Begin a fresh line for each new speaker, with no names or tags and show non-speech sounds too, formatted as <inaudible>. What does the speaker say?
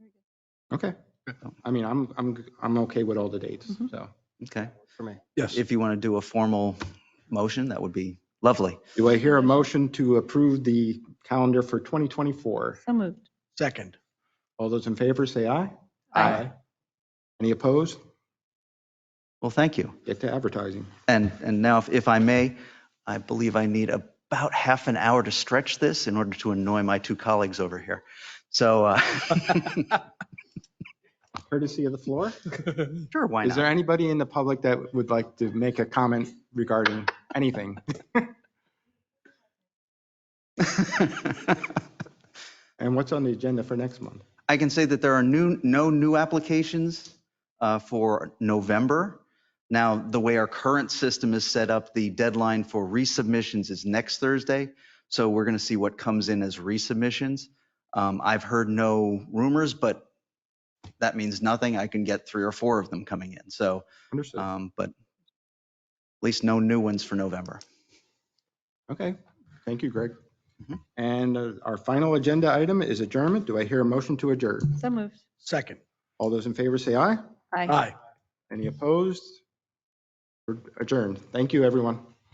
Okay. I mean, I'm, I'm, I'm okay with all the dates,
Mhm.
so,
Okay.
for me.
Yes.
If you want to do a formal motion, that would be lovely.
Do I hear a motion to approve the calendar for 2024?
So moved.
Second.
All those in favor, say aye.
Aye.
Any opposed?
Well, thank you.
Get to advertising.
And, and now, if- if I may, I believe I need about half an hour to stretch this in order to annoy my two colleagues over here. So, uh, <laughs>
Courtesy of the floor.
sure, why
Is there
not?
anybody in the public that would like to make a comment regarding anything?
<laughs>
And what's on the agenda for next month?
I can say that there are new, no new applications uh, for November. Now, the way our current system is set up, the deadline for resubmissions is next Thursday. So we're going to see what comes in as resubmissions. Um, I've heard no rumors, but that means nothing. I can get three or four of them coming in. So,
Understood.
um, but at least no new ones for November.
Okay. Thank you, Greg.
Mhm.
And uh, our final agenda item is adjournment. Do I hear a motion to adjourn?
So moved.
Second.
All those in favor, say aye.
Aye.
Aye.
Any opposed? We're Adjourned. Thank you, everyone.